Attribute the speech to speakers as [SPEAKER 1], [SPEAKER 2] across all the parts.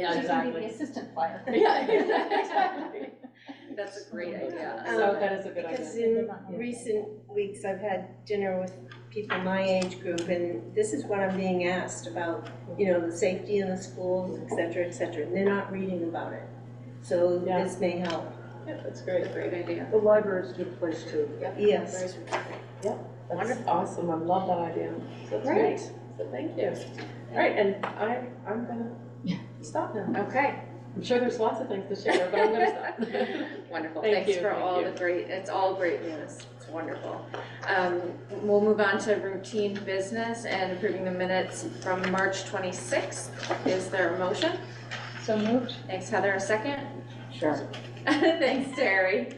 [SPEAKER 1] Yeah,
[SPEAKER 2] She's gonna be
[SPEAKER 1] exactly.
[SPEAKER 2] the assistant flyer.
[SPEAKER 1] Yeah, exactly. That's a great idea.
[SPEAKER 3] So
[SPEAKER 1] So,
[SPEAKER 3] that is a good
[SPEAKER 4] Because
[SPEAKER 3] idea.
[SPEAKER 4] in recent weeks, I've had dinner with people my age group, and this is what I'm being asked about, you know, the safety in the schools, et cetera, et cetera, and they're not reading about it. So
[SPEAKER 3] Yeah.
[SPEAKER 4] this may help.
[SPEAKER 3] Yeah, that's
[SPEAKER 1] that's
[SPEAKER 3] great.
[SPEAKER 1] a great idea.
[SPEAKER 3] The library is a good place too.
[SPEAKER 4] Yes.
[SPEAKER 3] That's awesome, I love that idea. So that's great, so thank you. All right, and I, I'm gonna stop now.
[SPEAKER 1] Okay,
[SPEAKER 3] I'm sure there's lots of things to share, but I'm gonna stop.
[SPEAKER 1] wonderful.
[SPEAKER 3] Thank
[SPEAKER 1] Thanks
[SPEAKER 3] you,
[SPEAKER 1] for
[SPEAKER 3] thank
[SPEAKER 1] all
[SPEAKER 3] you.
[SPEAKER 1] the great, it's all great news. It's wonderful. Um, We'll move on to routine business and approving the minutes from March 26th. Is there a motion?
[SPEAKER 2] So moved.
[SPEAKER 1] Thanks Heather, a second?
[SPEAKER 2] Sure.
[SPEAKER 1] Thanks Terry.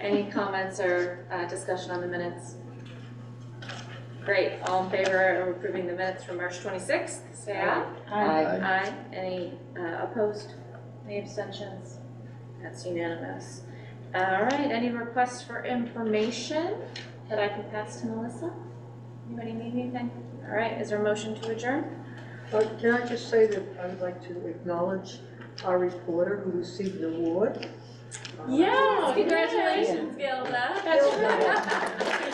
[SPEAKER 1] Any comments or uh, discussion on the minutes? Great, all in favor of approving the minutes from March 26th, say aye.
[SPEAKER 5] Aye.
[SPEAKER 1] Aye. Any uh, opposed? Any abstentions? That's unanimous. All right, any requests for information that I can pass to Melissa? Anybody need anything? All right, is there a motion to adjourn?
[SPEAKER 5] But can I just say that I would like to acknowledge our reporter who received an award?
[SPEAKER 3] Yeah,
[SPEAKER 1] Congratulations, Gilda.
[SPEAKER 3] That's right.
[SPEAKER 1] Good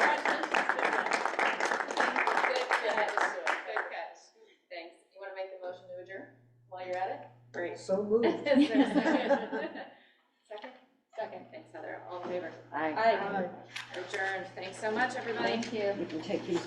[SPEAKER 1] catch. Good catch. Thanks. You want to make a motion to adjourn while you're at it? Great.
[SPEAKER 5] So moved.
[SPEAKER 1] Is there a second? Second? Second. Thanks, Heather. All in favor?
[SPEAKER 2] Aye.
[SPEAKER 1] Adjourned. Thanks so much, everybody.
[SPEAKER 2] You can take these